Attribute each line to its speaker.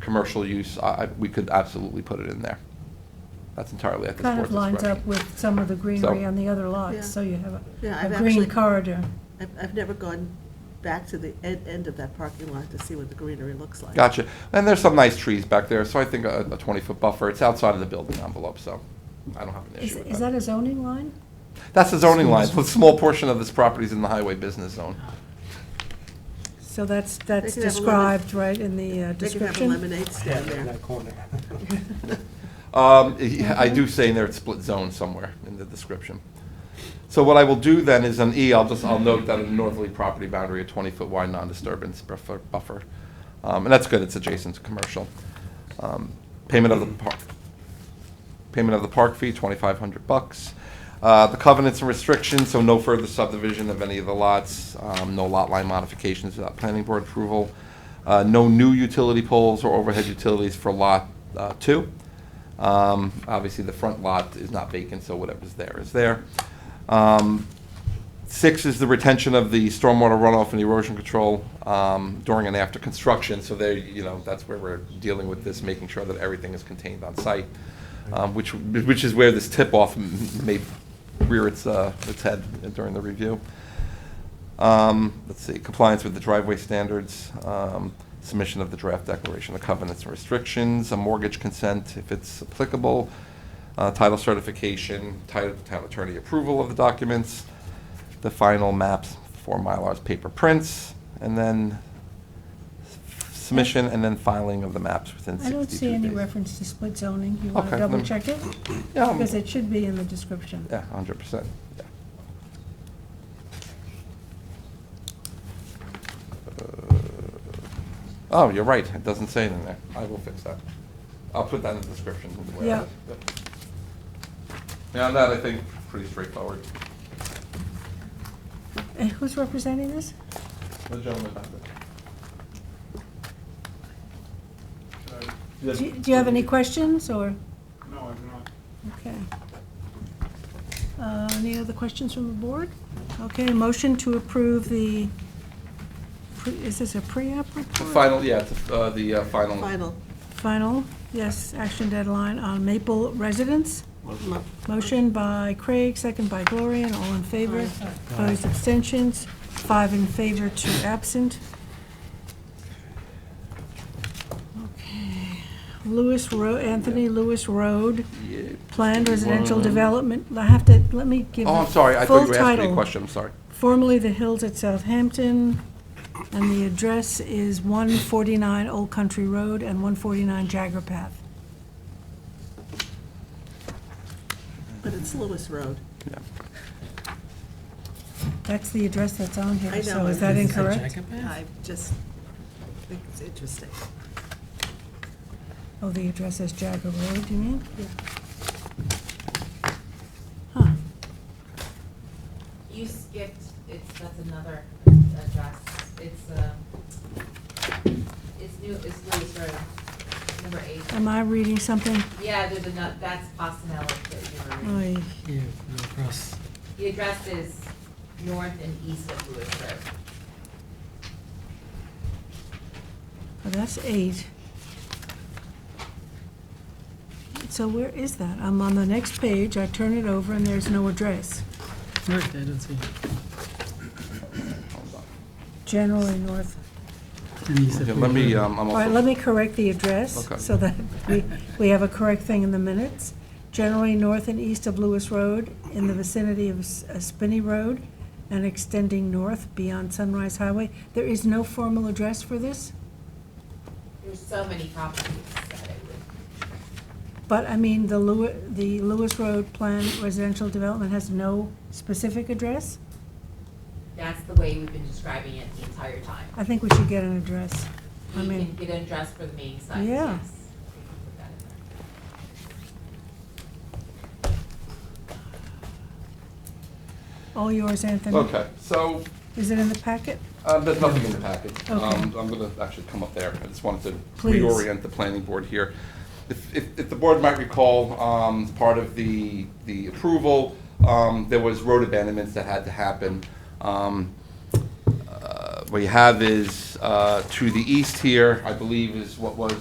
Speaker 1: commercial use, I, I- we could absolutely put it in there. That's entirely at the
Speaker 2: Kind of
Speaker 1: board's
Speaker 2: lines up
Speaker 1: discretion.
Speaker 2: with some of the greenery
Speaker 1: So-
Speaker 2: on the other
Speaker 3: Yeah.
Speaker 2: lots, so you have
Speaker 3: Yeah,
Speaker 2: a-
Speaker 3: I've
Speaker 2: a green
Speaker 3: actually-
Speaker 2: corridor.
Speaker 3: I've, I've never gone back to the end, end of that parking lot to see what the greenery looks like.
Speaker 1: Gotcha. And there's some nice trees back there, so I think a, a twenty-foot buffer, it's outside of the building envelope, so I don't have an
Speaker 2: Is
Speaker 1: issue
Speaker 2: is
Speaker 1: with
Speaker 2: that
Speaker 1: that.
Speaker 2: a zoning line?
Speaker 1: That's the zoning line, so a small portion of this property is in the highway business zone.
Speaker 2: So that's, that's
Speaker 3: could have a lemon-
Speaker 2: described, right, in the uh,
Speaker 3: They could have a
Speaker 2: description?
Speaker 3: lemonade stand
Speaker 4: in
Speaker 3: there.
Speaker 4: that corner.
Speaker 1: Um, yeah, I do say in there it's split zone somewhere in the description. So what I will do then is an E, I'll just, I'll note that a northerly property boundary, a twenty-foot wide non-disturbance buffer, buffer. Um, and that's good, it's adjacent to commercial. Um, Payment of the park, payment of the park fee, twenty-five hundred bucks. Uh, the covenants and restrictions, so no further subdivision of any of the lots, um, no lot line modifications without planning board approval. Uh, no new utility poles or overhead utilities for lot, uh, two. Um, Obviously, the front lot is not vacant, so whatever's there is there. Um, Six is the retention of the stormwater runoff and erosion control um, during and after construction. So there, you know, that's where we're dealing with this, making sure that everything is contained on site, um, which, which is where this tip-off m- may rear its, uh, its head during the review. Um, Let's see, compliance with the driveway standards, um, submission of the draft declaration of covenants and restrictions, a mortgage consent if it's applicable, uh, title certification, title town attorney approval of the documents, the final maps, four Mylars paper prints, and then submission and then filing of the maps within
Speaker 2: I
Speaker 1: 62
Speaker 2: don't
Speaker 1: days.
Speaker 2: see any reference to split zoning. You want to
Speaker 1: Okay, let me-
Speaker 2: double check it?
Speaker 1: Yeah, I'm-
Speaker 2: Because it should be in the description.
Speaker 1: Yeah, hundred percent. Oh, you're right, it doesn't say it in there. I will fix that. I'll put that in the description. of the way I-
Speaker 2: Yeah.
Speaker 1: Yep. Yeah, that I think pretty straightforward.
Speaker 2: And who's representing this?
Speaker 1: The gentleman back there.
Speaker 2: Do you- do you have any questions, or?
Speaker 5: No, I'm not.
Speaker 2: Okay. Uh, Any other questions from the board? Okay, motion to approve the, pre- is this a pre-app
Speaker 1: The
Speaker 2: report?
Speaker 1: final, yeah, it's, uh, the uh, final.
Speaker 3: Final.
Speaker 2: Final, yes, action deadline on Maple Residence.
Speaker 3: mo-
Speaker 2: Motion by Craig, second by Gloria, and all in favor. Opposed, abstentions, five in favor, two absent. Okay. Lewis Road, Anthony Lewis Road.
Speaker 1: Yeah.
Speaker 2: Planned residential development, I have to, let me give
Speaker 1: um, Oh,
Speaker 2: the
Speaker 1: I'm sorry, I
Speaker 2: full
Speaker 1: thought you were asking me
Speaker 2: title.
Speaker 1: a question, I'm sorry.
Speaker 2: Formerly the Hills at Southampton, and the address is 149 Old Country Road and 149 Jagger Path.
Speaker 3: But it's Lewis Road.
Speaker 1: Yeah.
Speaker 2: That's the address that's on
Speaker 3: I
Speaker 2: here,
Speaker 3: know,
Speaker 2: so
Speaker 3: but
Speaker 2: is that
Speaker 3: it's-
Speaker 2: incorrect?
Speaker 3: I just think it's interesting.
Speaker 2: Oh, the address is Jagger Road, you mean?
Speaker 3: Yeah.
Speaker 2: Huh,
Speaker 6: You skipped, it's, that's another address, it's, um, it's new, it's Lewis Road, number eight.
Speaker 2: am I reading something?
Speaker 6: Yeah, there's another, that's Bostonella that you were reading.
Speaker 2: Oy.
Speaker 4: Yeah, across.
Speaker 6: The address is north and east of Lewis Road.
Speaker 2: Oh, that's eight. So where is that? I'm on the next page, I turn it over, and there's no address.
Speaker 7: Right, I didn't see.
Speaker 2: Generally north.
Speaker 1: Okay, Let me, um, I'm
Speaker 2: All
Speaker 1: also.
Speaker 2: right, let me correct the address,
Speaker 1: Okay.
Speaker 2: so that we, we have a correct thing in the minutes. Generally north and east of Lewis Road, in the vicinity of S- uh, Spinney Road, and extending north beyond Sunrise Highway. There is no formal address for this,
Speaker 6: There's so many properties that it would,
Speaker 2: but, I mean, the Lew, the Lewis Road Plan Residential Development has no specific address?
Speaker 6: that's the way we've been describing it the entire time.
Speaker 2: I think we should get an address. I
Speaker 6: You can
Speaker 2: mean,
Speaker 6: get an address for the main site,
Speaker 2: Yeah.
Speaker 6: yes. We can put that in there.
Speaker 2: all yours, Anthony.
Speaker 1: Okay, so
Speaker 2: Is it in the packet?
Speaker 1: Uh, There's nothing in the package.
Speaker 2: Okay.
Speaker 1: Um, I'm going to actually come up there. I just wanted to
Speaker 2: Please.
Speaker 1: reorient the planning board here. If if- if the board might recall, um, as part of the the approval, um, there was road abandonments that had to happen. Um, uh, What you have is uh, to the east here, I believe, is what was